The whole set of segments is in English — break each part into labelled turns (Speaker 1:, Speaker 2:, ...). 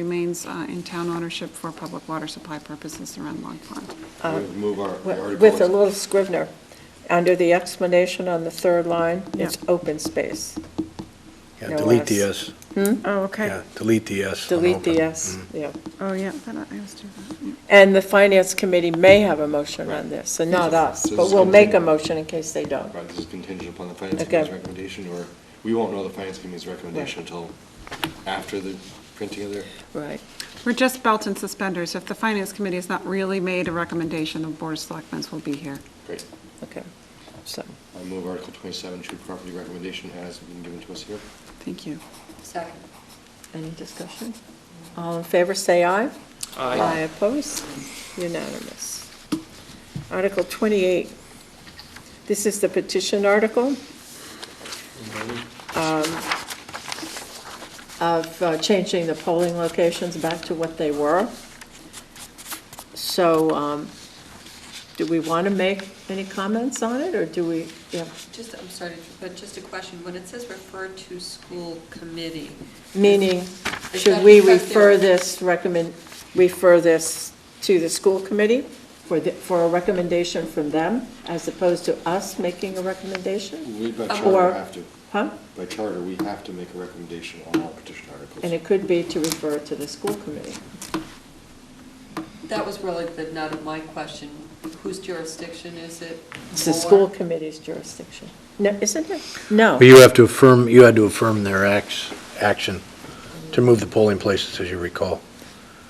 Speaker 1: remains uh, in town ownership for public water supply purposes around Long Pond.
Speaker 2: Move our the
Speaker 3: Wi-
Speaker 2: article.
Speaker 3: Uh, With a little scrivener, under the explanation on the third line, it's
Speaker 1: Yeah.
Speaker 3: open space.
Speaker 2: Oh,
Speaker 4: Yeah,
Speaker 3: No
Speaker 4: delete the
Speaker 3: S.
Speaker 4: S.
Speaker 1: Oh, okay.
Speaker 4: Yeah, delete the S. on
Speaker 3: Delete
Speaker 4: open. Mm.
Speaker 3: the S,
Speaker 2: Mm-hmm.
Speaker 3: yeah.
Speaker 1: Oh, yeah, that- I always do that. yeah.
Speaker 3: And the finance committee may have a motion on this, and not us,
Speaker 2: So
Speaker 3: but
Speaker 2: this
Speaker 3: we'll make a
Speaker 2: continue-
Speaker 3: motion in case they don't.
Speaker 2: Right, this is contingent upon the finance
Speaker 3: Okay.
Speaker 2: committee's recommendation, or, we won't know the finance committee's recommendation
Speaker 3: Right.
Speaker 2: until after the printing of their,
Speaker 3: Right.
Speaker 1: We're just belt and suspenders. If the finance committee has not really made a recommendation, the board of selectmen will be here.
Speaker 2: great.
Speaker 3: Okay, so,
Speaker 2: I move Article 27, true property recommendation has been given to us here.
Speaker 1: Thank you.
Speaker 5: Second.
Speaker 3: any discussion? All in favor, say aye. Aye opposed, unanimous. Article 28, this is the petition article um, of uh, changing the polling locations back to what they were. So um, do we want to make any comments on it, or do we, yeah,
Speaker 5: Just, I'm sorry, but just a question, when it says refer to school committee,
Speaker 3: meaning,
Speaker 5: Is
Speaker 3: should
Speaker 5: that
Speaker 3: we
Speaker 5: because
Speaker 3: refer
Speaker 5: they're-
Speaker 3: this, recommend, refer this to the school committee for, the- for a recommendation from them, as opposed to us making a recommendation?
Speaker 2: We, by
Speaker 5: Um,
Speaker 2: charter,
Speaker 3: Uh, or-
Speaker 2: have to,
Speaker 3: Huh?
Speaker 2: by charter, we have to make a recommendation on all petition articles.
Speaker 3: And it could be to refer to the school committee.
Speaker 5: that was really the nut of my question. Whose jurisdiction is it?
Speaker 3: It's the
Speaker 5: for?
Speaker 3: school committee's jurisdiction. No, isn't it? No.
Speaker 4: But you have to affirm, you had to affirm their acts, action to move the polling places, as you recall.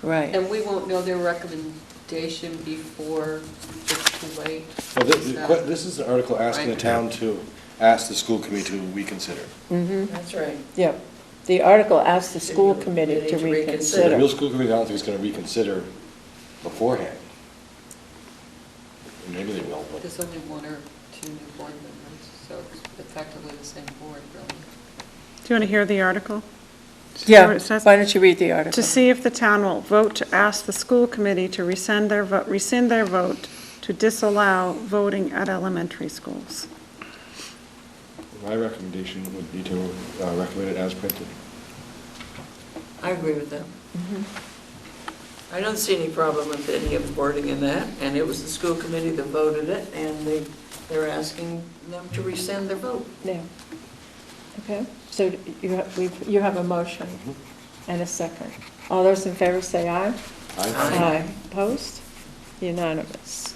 Speaker 3: Right.
Speaker 5: And we won't know their recommendation before it's too late.
Speaker 2: Well, thi-
Speaker 5: Is
Speaker 2: the
Speaker 5: that-
Speaker 2: que- This is an article asking the town
Speaker 5: Right.
Speaker 2: to ask the school committee to reconsider.
Speaker 6: That's right.
Speaker 3: Yeah. The article asks the school committee to
Speaker 6: To reconsider.
Speaker 2: The
Speaker 3: reconsider.
Speaker 2: real school committee, I don't think is going to reconsider beforehand. Maybe they will, but.
Speaker 5: There's only one or two new board members, so it's effectively the same board, really.
Speaker 7: Do you want to hear the article? See what
Speaker 3: Yeah,
Speaker 7: it says?
Speaker 3: why don't you read the article?
Speaker 7: To see if the town will vote to ask the school committee to rescind their, vo- rescind their vote to disallow voting at elementary schools.
Speaker 2: My recommendation would be to uh, recommend it as printed.
Speaker 6: I agree with that. Mm-hmm. I don't see any problem with any of the wording in that, and it was the school committee that voted it, and they, they're asking them to rescind their vote.
Speaker 3: Yeah. Okay, so you have, we've- you have a motion and a second. All those in favor say aye. Aye. Opposed? Unanimous.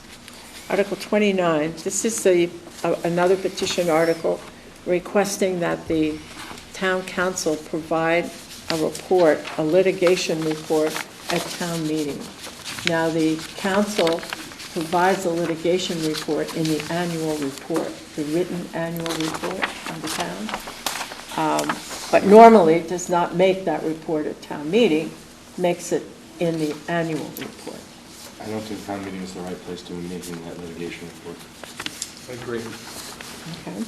Speaker 3: Article 29, this is the, a- another petition article requesting that the town council provide a report, a litigation report at town meeting. Now, the council provides a litigation report in the annual report, the written annual report of the town Um, but normally does not make that report at town meeting, makes it in the annual report.
Speaker 2: I don't think town meeting is the right place to be making that litigation report.
Speaker 3: Okay.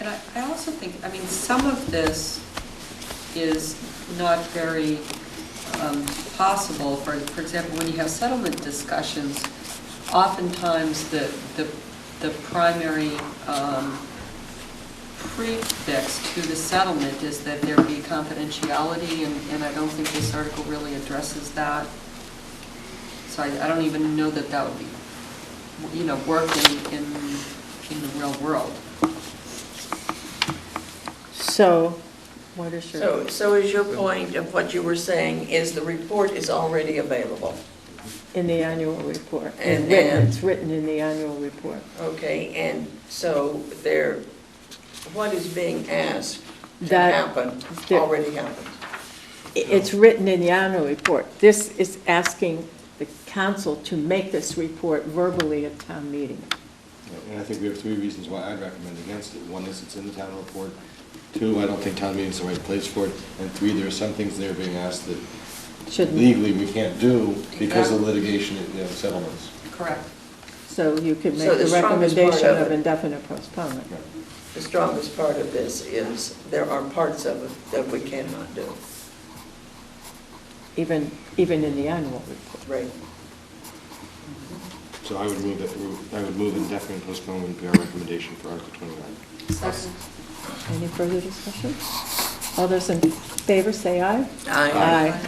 Speaker 5: And I, I also think, I mean, some of this is not very um, possible. For, for example, when you have settlement discussions, oftentimes the, the, the primary um, prefix to the settlement is that there be confidentiality, and, and I don't think this article really addresses that. So I, I don't even know that that would be, you know, work in, in, in the real world.
Speaker 3: So, what is your,
Speaker 6: So, so is your point of what you were saying is the report is already available?
Speaker 3: in the annual report? It's written-
Speaker 6: And- and-
Speaker 3: It's written in the annual report.
Speaker 6: Okay, and so there, what is being asked to
Speaker 3: That-
Speaker 6: happen
Speaker 3: there-
Speaker 6: already happened?
Speaker 3: I- It's written in the annual report. This is asking the council to make this report verbally at town meeting.
Speaker 2: And I think we have three reasons why I'd recommend against it. One is it's in the town report. Two, I don't think town meeting's the right place for it. And three, there are some things that are being asked that
Speaker 3: Shouldn't,
Speaker 2: legally we can't do because of litigation and you know, settlements.
Speaker 5: Correct.
Speaker 3: so you could
Speaker 6: So
Speaker 3: make
Speaker 6: the
Speaker 3: the
Speaker 6: strongest part
Speaker 3: recommendation
Speaker 6: of
Speaker 3: of
Speaker 6: it-
Speaker 3: indefinite postponement.
Speaker 6: The strongest part of this is there are parts of it that we cannot do.
Speaker 3: Even, even in the annual report.
Speaker 6: Right.
Speaker 2: So I would move that, I would move indefinite postponement would be our recommendation for Article 29.
Speaker 5: Second.
Speaker 3: Any further discussion? All those in favor, say aye.
Speaker 6: Aye.
Speaker 3: Aye.